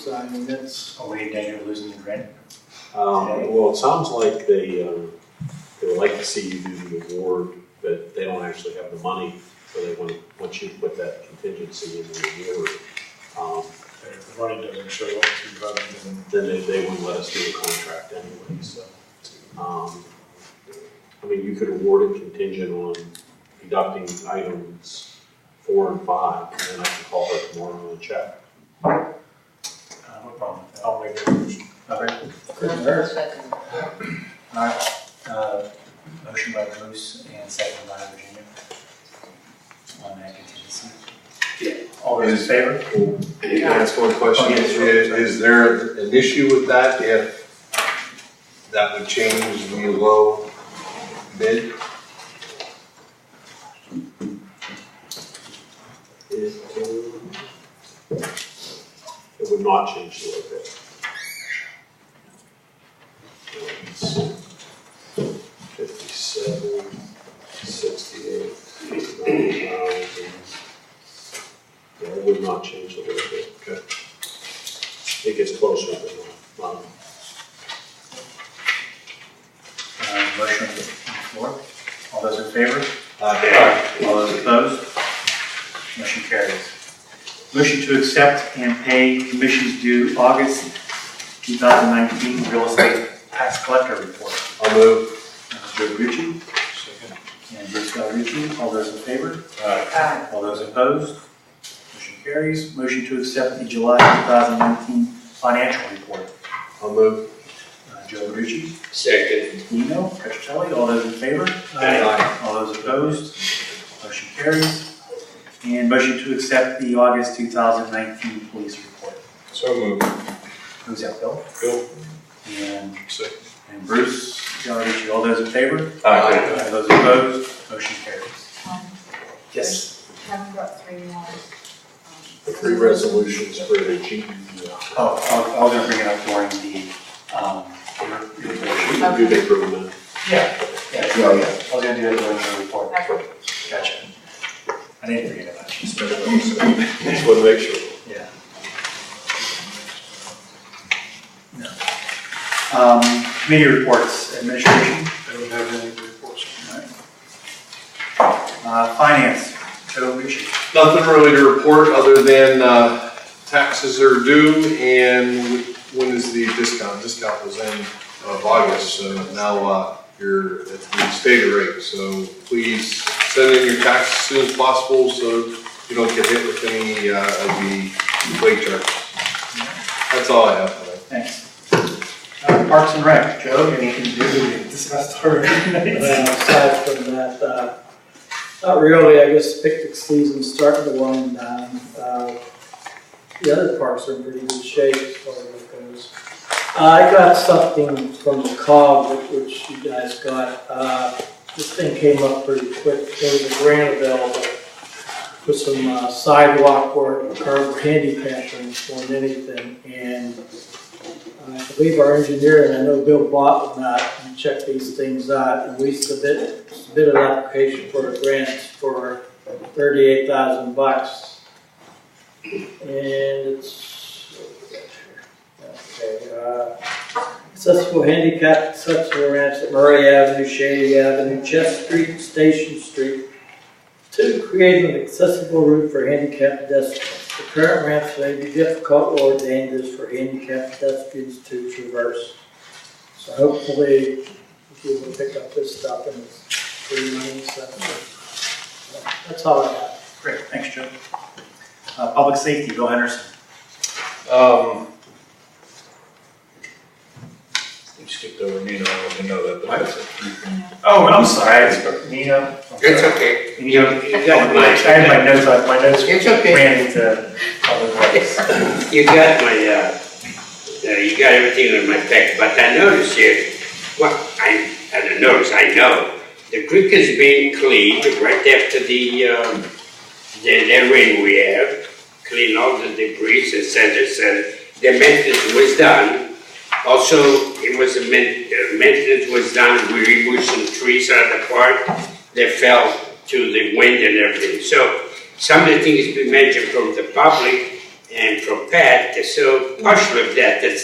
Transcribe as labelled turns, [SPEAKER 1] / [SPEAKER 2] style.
[SPEAKER 1] So I mean, that's,
[SPEAKER 2] Are we in danger of losing the grant?
[SPEAKER 3] Um, well, it sounds like they, um, they would like to see you do the award, but they don't actually have the money, so they want, want you to put that contingency in the award. Um,
[SPEAKER 4] If the money doesn't show up to vote, then
[SPEAKER 3] then they, they wouldn't let us do the contract anyway, so. Um, I mean, you could award it contingent on deducting items four and five, and then I can call her tomorrow and check.
[SPEAKER 2] Uh, no problem with
[SPEAKER 4] I'll make that motion.
[SPEAKER 2] that. All right,
[SPEAKER 1] couldn't hurt.
[SPEAKER 5] Second.
[SPEAKER 2] all right, uh, motion by Bruce and second by Virginia. On that contingency. All those in favor?
[SPEAKER 6] Can I ask one question?
[SPEAKER 2] Oh, yes,
[SPEAKER 6] Is,
[SPEAKER 2] sure.
[SPEAKER 6] is there an issue with that if that would change the low bid?
[SPEAKER 3] It, um, it would not change the bit. Fifty-seven, sixty-eight, ninety thousand. Yeah, it would not change the little bit. Okay. It gets closer than that. Um,
[SPEAKER 2] Uh, motion on the floor. All those in favor?
[SPEAKER 6] Uh,
[SPEAKER 2] All those opposed? Motion carries. Motion to accept and pay commissions due August 2019 real estate tax collector report.
[SPEAKER 6] I'll move.
[SPEAKER 2] Joe Gucci
[SPEAKER 4] Second.
[SPEAKER 2] and Bruce Valucci, all those in favor?
[SPEAKER 4] Aye.
[SPEAKER 5] Aye.
[SPEAKER 2] All those opposed? Motion carries. Motion to accept the July 2019 financial report.
[SPEAKER 6] I'll move.
[SPEAKER 2] Uh, Joe Gucci,
[SPEAKER 7] Second.
[SPEAKER 2] Nino, Petrocelli, all those in favor?
[SPEAKER 6] Aye.
[SPEAKER 2] All those opposed? Motion carries. And motion to accept the August 2019 police report.
[SPEAKER 4] So moved.
[SPEAKER 2] Who's that, Bill?
[SPEAKER 4] Bill.
[SPEAKER 2] And,
[SPEAKER 4] Second.
[SPEAKER 2] and Bruce, Valucci, all those in favor?
[SPEAKER 6] Aye.
[SPEAKER 2] All those opposed? Motion carries.
[SPEAKER 5] Um,
[SPEAKER 2] Yes.
[SPEAKER 5] Kevin got three more.
[SPEAKER 3] The three resolutions for the G, E, uh,
[SPEAKER 2] Oh, I- I was gonna bring it up during the, um, your- your report.
[SPEAKER 3] uh, do the improvement.
[SPEAKER 2] Yeah, yeah,
[SPEAKER 6] Yeah, yeah.
[SPEAKER 2] I was gonna do that during the report.
[SPEAKER 5] Okay.
[SPEAKER 2] Gotcha. I didn't forget about you.
[SPEAKER 3] Just want to make sure.
[SPEAKER 2] Yeah. No. Um, committee reports, administration,
[SPEAKER 4] I don't have any reports.
[SPEAKER 2] uh, finance, Joe Ritchie.
[SPEAKER 6] Nothing really to report other than uh, taxes are due and when is the discount? Discount was in of August, so now uh, you're at the stated rate. So please send in your taxes as soon as possible so you don't get hit with any uh, of the late charges. That's all I have today.
[SPEAKER 2] Thanks. Uh, Parks and Rec, Joe, anything to do with
[SPEAKER 1] Discussed already. And then aside from that, uh, not really, I guess picnic season started the one, um, uh, the other parks are in pretty good shape as far as it goes. Uh, I got something from the COG, which- which you guys got, uh, this thing came up pretty quick, there was a grant available for some uh, sidewalk work, curb handicapping more than anything, and I believe our engineer, and I know Bill Bott will not, and check these things out, and we submit, submit an application for a grant for thirty-eight thousand bucks. And it's, okay, uh, accessible handicap, accessible ramps at Murray Avenue, Shady Avenue, Chest Street, Station Street. Two, create an accessible route for handicapped pedestrians. The current ramps may be difficult or dangerous for handicapped pedestrians to traverse. So hopefully, we will pick up this stuff in three months. so, That's all I have.
[SPEAKER 2] Great, thanks, Joe. Uh, public safety, Bill Henderson.
[SPEAKER 6] Um,
[SPEAKER 4] You skipped over Nino, I don't even know that, but that's it.
[SPEAKER 2] Oh, I'm sorry. Nino.
[SPEAKER 7] It's okay.
[SPEAKER 2] Nino,
[SPEAKER 7] You got
[SPEAKER 2] I
[SPEAKER 7] my,
[SPEAKER 2] had my notes, on- my notes
[SPEAKER 7] it's okay.
[SPEAKER 2] ran into public works.
[SPEAKER 7] You got my, uh, uh, you got everything in my pack, but I noticed here, well, I, I don't notice, I know. The creek is being cleaned right after the, um, the, the rain we have, clean all the debris, et cetera, et cetera. The maintenance was done. Also, it was, a main- uh, maintenance was done, we removed some trees out of the park that fell to the wind and everything. So some of the things we mentioned from the public and from Pat, so partial of that, that's